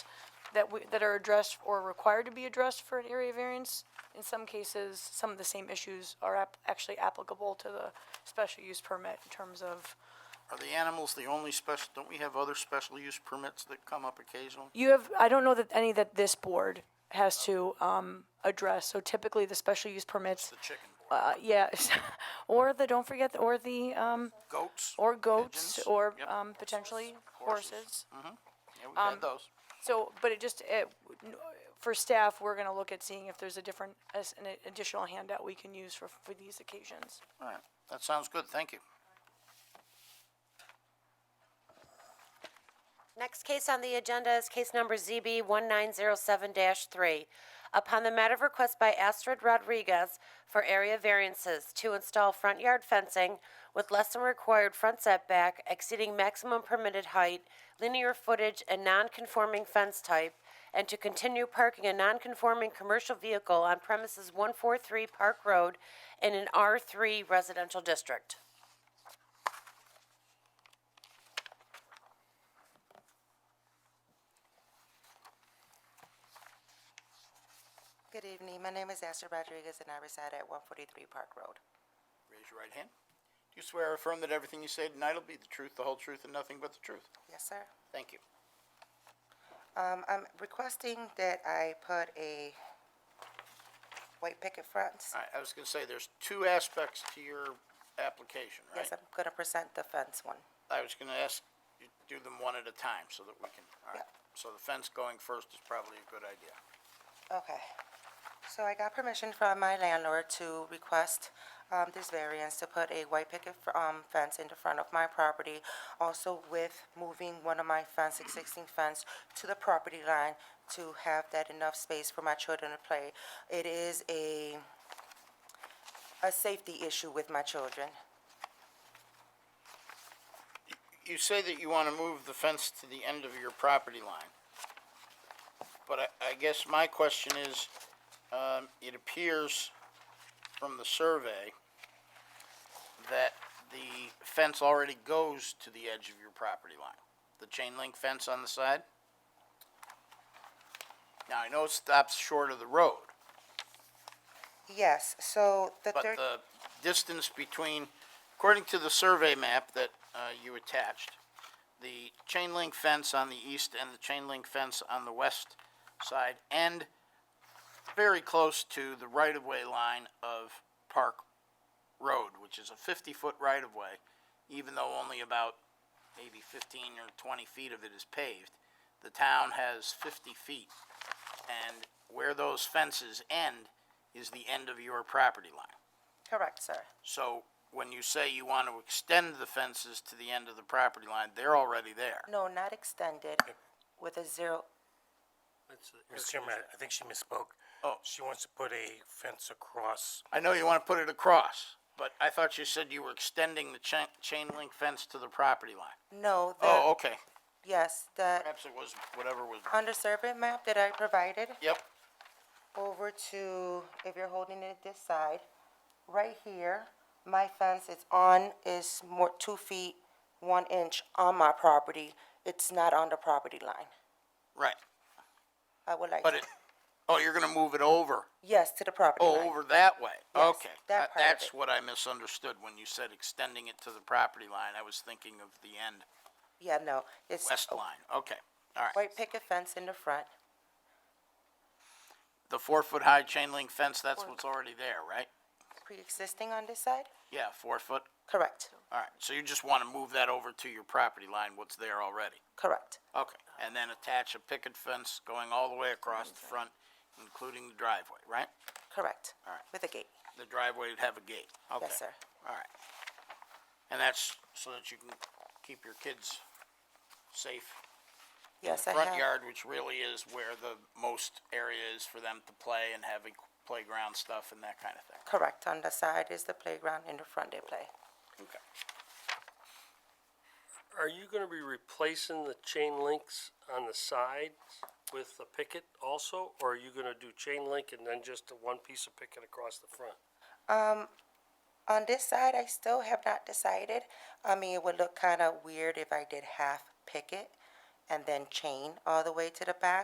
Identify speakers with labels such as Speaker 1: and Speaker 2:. Speaker 1: that we, that are addressed or required to be addressed for an area variance. In some cases, some of the same issues are ap- actually applicable to the special use permit in terms of,
Speaker 2: Are the animals the only special, don't we have other special use permits that come up occasionally?
Speaker 1: you have, I don't know that any that this board has to, um, address. So typically, the special use permits,
Speaker 2: The chicken board,
Speaker 1: uh, yeah, or the, don't forget, the- or the,
Speaker 3: Uh,
Speaker 1: um,
Speaker 2: goats?
Speaker 1: or goats,
Speaker 2: Pigeons.
Speaker 1: or,
Speaker 2: Yep.
Speaker 1: um, potentially
Speaker 2: Horses.
Speaker 1: horses.
Speaker 2: Yeah, we've
Speaker 3: um,
Speaker 2: had those.
Speaker 1: So, but it just, it, for staff, we're gonna look at seeing if there's a different, as an additional handout we can use for, for these occasions.
Speaker 2: All right, that sounds good, thank you.
Speaker 4: Next case on the agenda is case number ZB 1907-3. Upon the matter of request by Astrid Rodriguez for area variances to install front yard fencing with less than required front setback exceeding maximum permitted height, linear footage, and non-conforming fence type, and to continue parking a non-conforming commercial vehicle on premises 143 Park Road in an R3 residential district.
Speaker 3: Good evening. My name is Esther Rodriguez, and I reside at 143 Park Road.
Speaker 2: Raise your right hand. Do you swear or affirm that everything you say tonight will be the truth, the whole truth, and nothing but the truth?
Speaker 3: Yes, sir.
Speaker 2: Thank you.
Speaker 3: Um, I'm requesting that I put a white picket fence.
Speaker 2: All right, I was gonna say, there's two aspects to your application, right?
Speaker 3: Yes, I'm gonna present the fence one.
Speaker 2: I was gonna ask, you to do them one at a time so that we can, all right.
Speaker 3: Yeah.
Speaker 2: So the fence going first is probably a good idea.
Speaker 3: Okay. So I got permission from my landlord to request um, this variance to put a white picket f- um, fence in the front of my property, also with moving one of my fence, existing fence, to the property line to have that enough space for my children to play. It is a, a safety issue with my children.
Speaker 2: You say that you wanna move the fence to the end of your property line. But I, I guess my question is, um, it appears from the survey that the fence already goes to the edge of your property line. The chain link fence on the side? Now, I know it stops short of the road,
Speaker 3: Yes, so the
Speaker 2: But
Speaker 3: third,
Speaker 2: the distance between, according to the survey map that uh, you attached, the chain link fence on the east and the chain link fence on the west side end very close to the right-of-way line of Park Road, which is a 50-foot right-of-way, even though only about maybe 15 or 20 feet of it is paved. The town has 50 feet, and where those fences end is the end of your property line.
Speaker 3: correct, sir.
Speaker 2: So when you say you want to extend the fences to the end of the property line, they're already there.
Speaker 3: No, not extended, with a zero,
Speaker 5: Mr. Chairman, I- I think she misspoke.
Speaker 2: Oh.
Speaker 5: She wants to put a fence across.
Speaker 2: I know you want to put it across, but I thought you said you were extending the chain, chain link fence to the property line.
Speaker 3: no,
Speaker 2: Oh,
Speaker 3: the,
Speaker 2: okay.
Speaker 3: yes, the,
Speaker 2: Perhaps it was whatever was,
Speaker 3: under survey map that I provided,
Speaker 2: yep,
Speaker 3: over to, if you're holding it this side, right here, my fence is on, is more two feet, one inch on my property. It's not on the property line.
Speaker 2: right.
Speaker 3: I would like,
Speaker 2: But it, oh, you're going to move it over,
Speaker 3: yes, to the property
Speaker 2: oh,
Speaker 3: line.
Speaker 2: over that way.
Speaker 3: Yes,
Speaker 2: Okay.
Speaker 3: that
Speaker 2: That-
Speaker 3: part of
Speaker 2: That's
Speaker 3: it.
Speaker 2: what I misunderstood when you said extending it to the property line. I was thinking of the end,
Speaker 3: Yeah, no, it's
Speaker 2: west
Speaker 3: a
Speaker 2: line. Okay, all right.
Speaker 3: white picket fence in the front.
Speaker 2: The four-foot-high chain link fence, that's what's already there, right?
Speaker 3: Pre-existing on this side?
Speaker 2: Yeah, four foot.
Speaker 3: Correct,
Speaker 2: All right, so you just want to move that over to your property line, what's there already?
Speaker 3: correct,
Speaker 2: Okay. And then attach a picket fence going all the way across the front, including the driveway, right?
Speaker 3: correct.
Speaker 2: All right.
Speaker 3: With a gate,
Speaker 2: The driveway would have a gate. Okay.
Speaker 3: yes, sir.
Speaker 2: All right. And that's so that you can keep your kids safe.
Speaker 3: Yes, I
Speaker 2: Front
Speaker 3: have,
Speaker 2: yard, which really is where the most area is for them to play and having playground stuff and that kind of thing.
Speaker 3: correct. On the side is the playground, in the front they play.
Speaker 2: Okay.
Speaker 6: Are you gonna be replacing the chain links on the sides with the picket also, or are you gonna do chain link and then just the one piece of picket across the front?
Speaker 3: On this side, I still have not decided. I mean, it would look kind of weird if I did half picket and then chain all the way to the back.